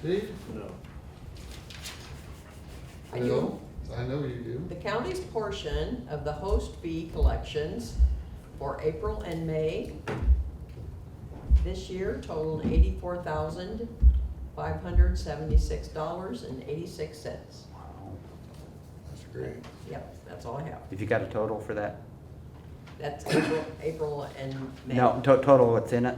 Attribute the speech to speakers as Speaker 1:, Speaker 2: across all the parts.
Speaker 1: Steve?
Speaker 2: No.
Speaker 3: I do.
Speaker 1: I know you do.
Speaker 3: The county's portion of the host fee collections for April and May this year totaled eighty-four thousand, five hundred seventy-six dollars and eighty-six cents.
Speaker 1: That's great.
Speaker 3: Yep, that's all I have.
Speaker 4: Have you got a total for that?
Speaker 3: That's April, April and May.
Speaker 4: No, to- total what's in it?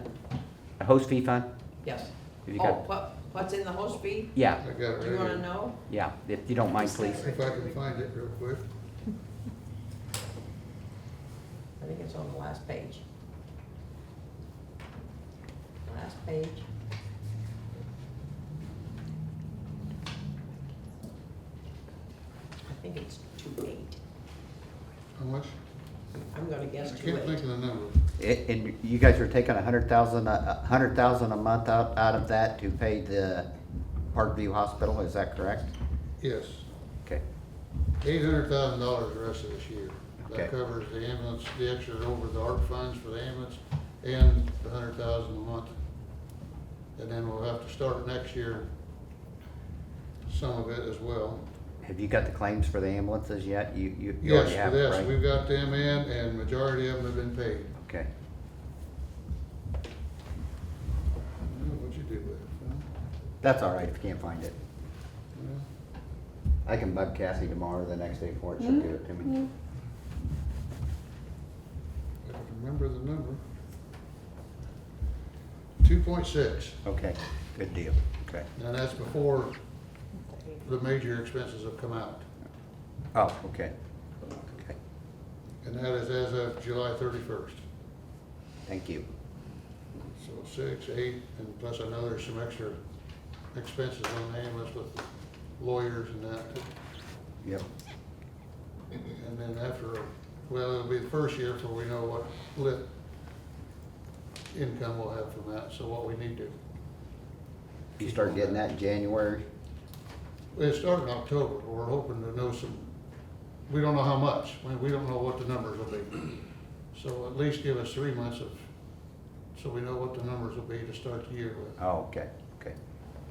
Speaker 4: A host fee fund?
Speaker 3: Yes.
Speaker 4: Have you
Speaker 3: Oh,
Speaker 4: got?
Speaker 3: what, what's in the host fee?
Speaker 1: I
Speaker 4: Yeah,
Speaker 1: got it right
Speaker 3: Do you wanna
Speaker 1: here.
Speaker 3: know?
Speaker 4: yeah, if you don't mind, please.
Speaker 1: If I can find it real quick.
Speaker 3: I think it's on the last page. Last page. I think it's two eight.
Speaker 1: How much?
Speaker 3: I'm gonna
Speaker 1: I
Speaker 3: guess two
Speaker 1: can't think
Speaker 3: eight.
Speaker 1: of the number.
Speaker 4: A- And you guys are taking a hundred thousand, a a hundred thousand a month out, out of that to pay the Parkview Hospital, is that correct?
Speaker 1: Yes,
Speaker 4: Okay,
Speaker 1: eight hundred thousand dollars the rest of this year.
Speaker 4: Okay.
Speaker 1: That covers the ambulance, the extra over the ARP funds for the ambulance and the hundred thousand a month. And then we'll have to start next year, some of it as well.
Speaker 4: have you got the claims for the ambulances yet? You, you, you
Speaker 1: Yes,
Speaker 4: already have,
Speaker 1: for
Speaker 4: it, right?
Speaker 1: this, we've got them in and majority of them have been paid.
Speaker 4: Okay,
Speaker 1: I don't know what you do with it, huh?
Speaker 4: that's all right if you can't find it.
Speaker 1: Well,
Speaker 4: I can bug Cassie tomorrow or the next day for it, she'll give it to me.
Speaker 1: I can remember the number. Two point six,
Speaker 4: Okay, good deal, okay.
Speaker 1: and that's before the major expenses have come out.
Speaker 4: Oh, okay, okay,
Speaker 1: And that is as of July thirty-first.
Speaker 4: thank you.
Speaker 1: So six, eight, and plus I know there's some extra expenses on the ambulance with lawyers and that.
Speaker 4: Yep,
Speaker 1: And then after, well, it'll be the first year before we know what lit income we'll have from that, so what we need to.
Speaker 4: you start getting that in January?
Speaker 1: It started in October, but we're hoping to know some, we don't know how much, we, we don't know what the numbers will be. So at least give us three months of, so we know what the numbers will be to start the year with.
Speaker 4: Oh, okay, okay.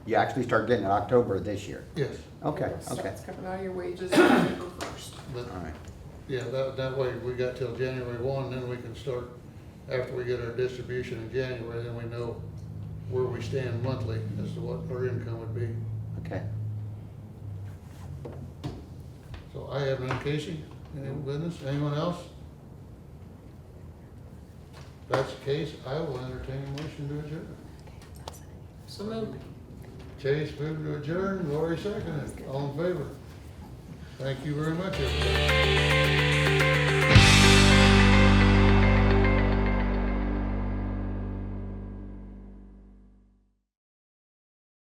Speaker 4: You actually start getting it October of this year?
Speaker 1: Yes,
Speaker 4: Okay, okay,
Speaker 5: Starts coming out of your wages October first.
Speaker 1: but,
Speaker 4: all right.
Speaker 1: yeah, that, that way we got till January one, then we can start, after we get our distribution in January, then we know where we stand monthly as to what our income would be.
Speaker 4: Okay.
Speaker 1: So I have none, Casey, any business, anyone else? If that's the case, I will entertain a motion to adjourn.
Speaker 5: So moved.
Speaker 1: Chase moved to adjourn, Lori seconded, all in favor. Thank you very much, everybody.